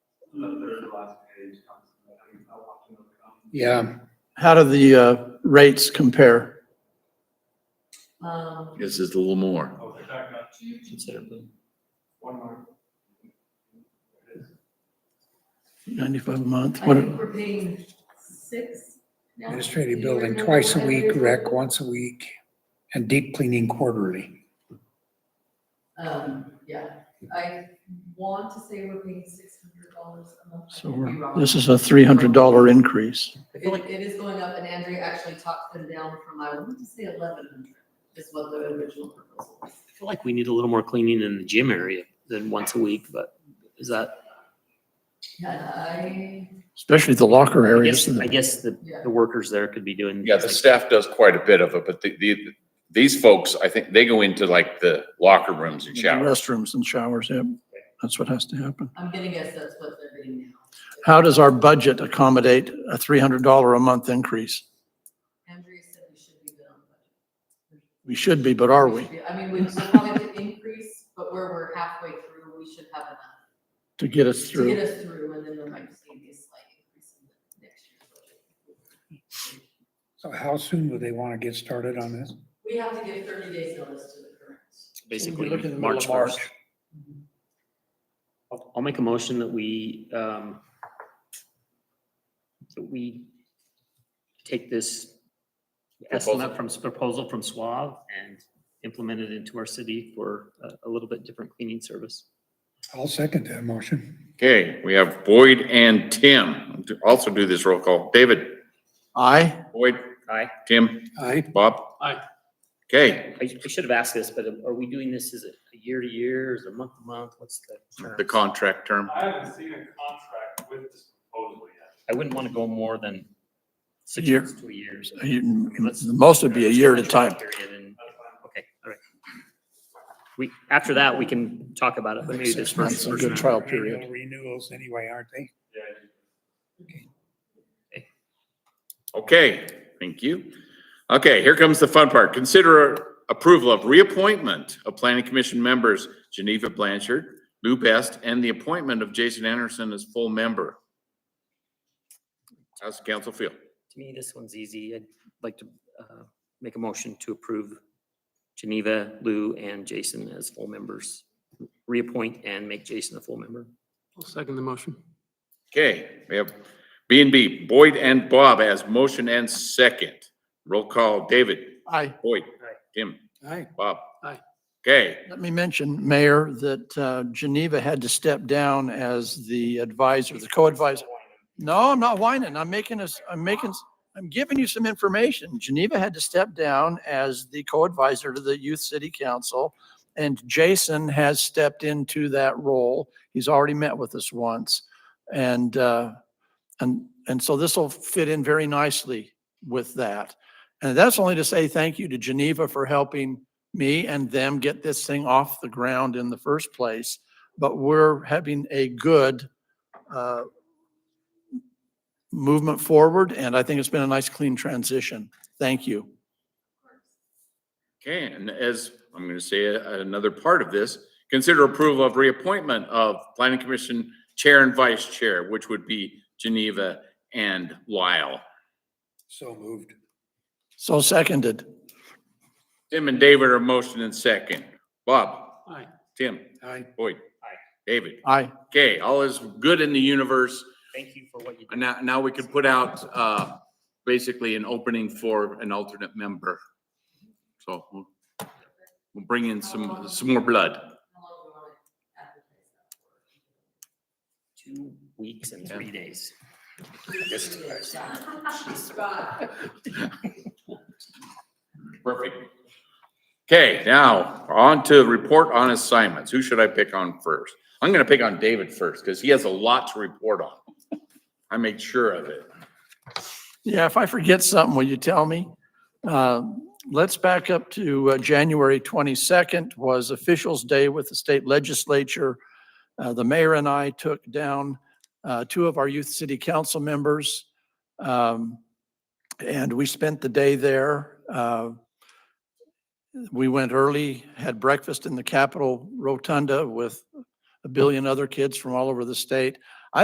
the third to last page, comes, I mean, I'll watch another comment. Yeah, How do the uh, rates compare? Um, This is a little more. Oh, they're back up, Considerably. one more. 95 a month? I What, think we're paying six now. administrative Do you building remember twice a what week, it is? rec once a week, and deep cleaning quarterly. Um, yeah, I want to say we're paying six hundred dollars a month. I so could be we're, wrong. this is a $300 increase. It, it is going up and Andrea actually talked them down from, I want to say eleven hundred is what the original proposal was. I feel like we need a little more cleaning in the gym area than once a week, but is that, And I, Especially the locker I areas. guess, I guess the, yeah, the workers there could be doing. Yeah, the staff does quite a bit of it, but the, the, these folks, I think they go into like the locker rooms and The showers. Restrooms and showers, yep. That's what has to happen. I'm gonna guess that's what they're getting now. How does our budget accommodate a $300 a month increase? Andrea said we should be good on budget. We should be, but are we? should be- I mean, we should probably have an increase, but where we're halfway through, we should have enough. To get us to get through. us through, and then there might just be a slight increase in the next year's budget. So how soon would they want to get started on this? We have to give thirty days notice to the current. Basically, We're looking in the middle March of first. I'll, I'll make a motion that we, um, that we take this estimate Proposal. from, proposal from Suave and implement it into our city for a, a little bit different cleaning service. I'll second that motion. Okay, we have Boyd and Tim. Also do this roll call. David, Aye? Boyd, Aye. Tim, Aye. Bob. Aye. Okay, I, I should have asked this, but are we doing this, is it a year to year, is it month to month, what's the? the term? contract term. I haven't seen a contract with this proposal yet. I wouldn't want to go more than six Year. months to a year. so- A year- let's- Most would be a year at a time. Period and- Okay, all right. We, after that, we can talk about it, but maybe this Six first. months, a good trial period. Annual Renewals anyway, aren't they? Yeah, you- Okay, thank you. Okay, here comes the fun part. Consider approval of reappointment of planning commission members Geneva Blanchard, Lou Best, and the appointment of Jason Anderson as full member. How's the council feel? To me, this one's easy. I'd like to uh, make a motion to approve Geneva, Lou, and Jason as full members. Reappoint and make Jason a full member. Okay, we have B and B, Boyd and Bob as motion and second. Roll call, David, Aye. Boyd, Aye. Tim, Aye. Bob. Aye. Okay, Let me mention, Mayor, that uh, Geneva had to step down as the advisor, the co-advisor. No, I'm not whining. I'm making us, I'm making, I'm giving you some information. Geneva had to step down as the co-advisor to the Youth City Council. And Jason has stepped into that role. He's already met with us once. And, uh, and, and so this will fit in very nicely with that. And that's only to say thank you to Geneva for helping me and them get this thing off the ground in the first place. But we're having a good uh, movement forward, and I think it's been a nice, clean transition. Thank you. okay, and as, I'm gonna say a- another part of this, consider approval of reappointment of planning commission chair and vice chair, which would be Geneva and Lyle. So moved. So seconded. Tim and David are motion and second. Bob. Aye. Tim, Aye. Boyd. Aye. David. Aye. Okay, all is good in the universe. Thank you for what you And now, now we can put out, uh, basically an opening for an alternate member. So we'll, we'll bring in some, some more blood. How long do we want to advertise that for? did. Two weeks and three days. Three days, yeah. Scott. Perfect. Okay, now on to report on assignments. Who should I pick on first? I'm gonna pick on David first because he has a lot to report on. I made sure of it. Yeah, if I forget something, will you tell me? Uh, Let's back up to uh, January 22nd was Officials Day with the state legislature. Uh, The mayor and I took down uh, two of our youth city council members. um, And we spent the day there. Uh, We went early, had breakfast in the Capitol Rotunda with a billion other kids from all over the state.